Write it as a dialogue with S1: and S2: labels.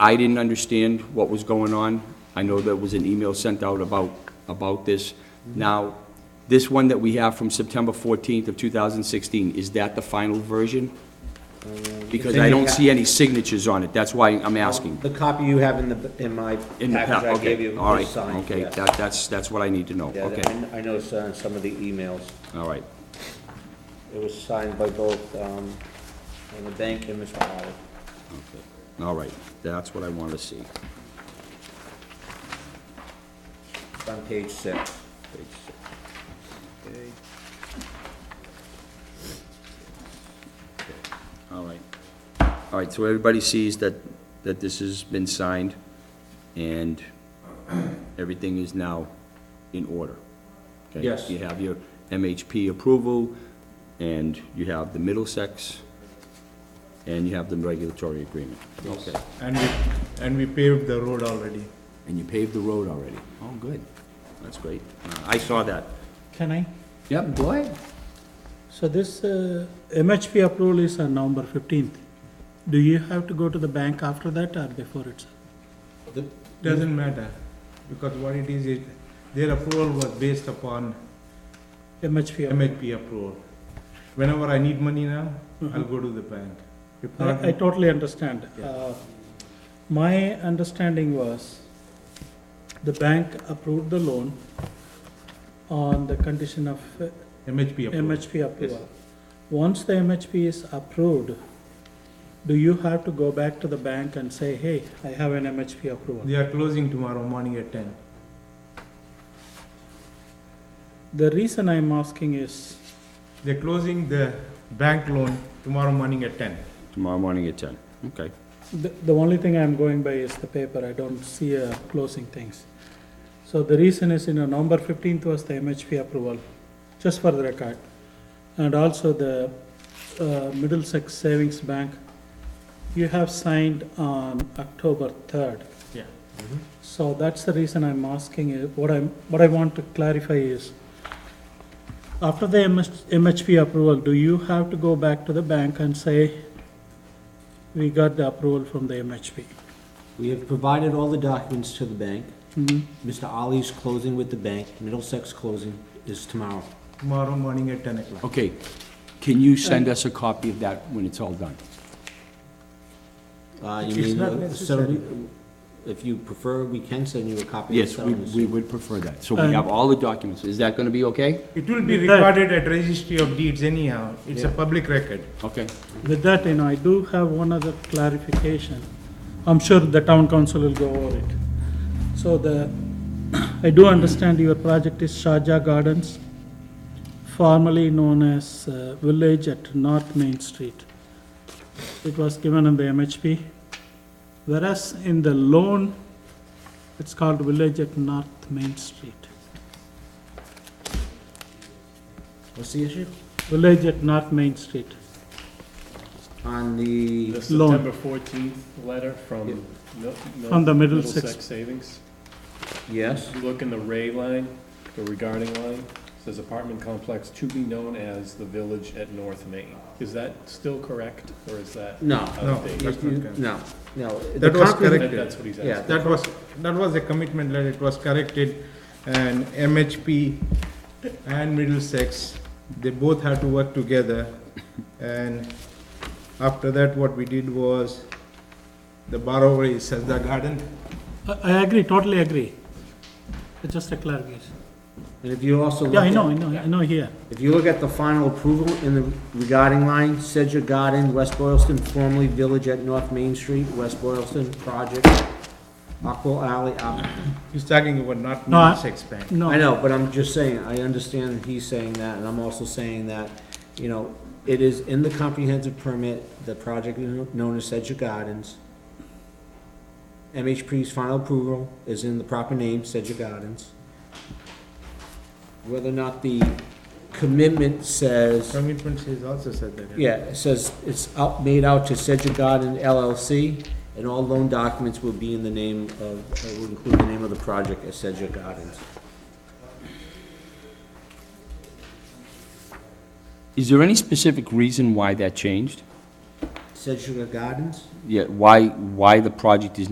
S1: I didn't understand what was going on. I know there was an email sent out about, about this. Now, this one that we have from September 14th of 2016, is that the final version? Because I don't see any signatures on it, that's why I'm asking.
S2: The copy you have in the, in my
S1: In the pa-
S2: package I gave
S1: okay,
S2: you
S1: all
S2: was
S1: right,
S2: signed.
S1: okay,
S2: yeah.
S1: that, that's, that's what I need to know,
S2: Yeah,
S1: okay,
S2: I I noticed uh, some of the emails.
S1: all right.
S2: It was signed by both, um, and the bank and Mr. Howard.
S1: Okay. All right, that's what I want to see.
S2: It's on page six.
S1: Page six. All right. All right, so everybody sees that, that this has been signed, and everything is now in order. Okay?
S2: Yes.
S1: You have your MHP approval, and you have the Middlesex, and you have the regulatory agreement. Okay.
S3: And we, and we paved the road already.
S1: And you paved the road already. Oh, good. That's great. Uh, I saw that.
S4: Can I?
S1: Yep, go ahead.
S4: So this uh, MHP approval is on November 15th. Do you have to go to the bank after that or before it? sir?
S3: Doesn't matter, because what it is, it, their approval was based upon
S4: MHP approval.
S3: MHP approval. Whenever I need money now, I'll go to the bank. If not,
S4: Mm-hmm. I I totally understand. Uh, My understanding was the bank approved the loan on the condition of uh,
S3: MHP approval.
S4: MHP approval. Once the MHP is approved, do you have to go back to the bank and say, hey, I have an MHP approval?
S3: They are closing tomorrow morning at ten.
S4: The reason I'm asking is,
S3: They're closing the bank loan tomorrow morning at ten.
S1: Tomorrow morning at 10. Okay.
S4: the, the only thing I'm going by is the paper, I don't see uh, closing things. So the reason is, you know, November fifteenth was the MHP approval, just for the record. And also the uh, Middlesex Savings Bank, you have signed on October third.
S3: Yeah.
S4: So that's the reason I'm asking, uh, what I'm, what I want to clarify is, after the MS MHP approval, do you have to go back to the bank and say, we got the approval from the MHP?
S2: We have provided all the documents to the bank.
S4: Mhm.
S2: Mr. Ali's closing with the bank, Middlesex closing is tomorrow.
S3: Tomorrow morning at ten o'clock.
S1: Okay. Can you send us a copy of that when it's all done?
S2: Uh,
S3: It's
S2: you mean, uh,
S3: not necessary.
S2: settle- If you prefer, we can send you a copy of the
S1: Yes, we,
S2: settlement.
S1: we would prefer that. So we
S4: And-
S1: have all the documents. Is that going to be okay?
S3: It will be
S4: With that-
S3: recorded at registry of deeds anyhow, it's a public record.
S1: Okay.
S4: With that, you know, I do have one other clarification. I'm sure the town council will go over it. So the, I do understand your project is Shaja Gardens, formerly known as uh, Village at North Main Street. It was given in the MHP, whereas in the loan, it's called Village at North Main Street.
S2: What's the issue?
S4: Village at North Main Street.
S2: On the,
S5: The
S4: Loan.
S5: September 14th letter
S2: Yeah.
S5: from. Mil- Mil-
S4: From the Middlesex.
S5: Savings.
S2: yes,
S5: If you Look in the Ray line, the regarding line, says apartment complex to be known as the Village at North Main. Is that still correct, or is that?
S2: no,
S3: No,
S5: outdated?
S3: that's not correct.
S2: no, no.
S3: That was correct.
S5: That- That's what he's
S2: Yeah.
S5: asking.
S3: That was, that was a commitment letter, it was corrected, and MHP and Middlesex, they both had to work together. And after that, what we did was, the borrower is Sajda Garden.
S4: I I agree, totally agree. It's just a clarification.
S2: And if you also.
S4: Yeah, I
S2: look
S4: know,
S2: at-
S4: I know, I know here.
S2: If you look at the final approval in the regarding line, Sedger Garden, West Boylston, formerly Village at North Main Street, West Boylston Project, Aqua Alley, Aqua-
S3: He's talking about not
S4: No, I-
S3: Middlesex Bank.
S4: No.
S2: I know, but I'm just saying, I understand he's saying that, and I'm also saying that, you know, it is in the comprehensive permit, the project is known as Sedger Gardens. MHP's final approval is in the proper name, Sedger Gardens. Whether or not the commitment says.
S3: Commitment is also Sajda Garden.
S2: Yeah, it says it's out, made out to Sedgwick Garden LLC, and all loan documents will be in the name of, uh, will include the name of the project as Sedgwick Gardens.
S1: Is there any specific reason why that changed?
S2: Sedgwick Gardens?
S1: Yeah, why, why the project is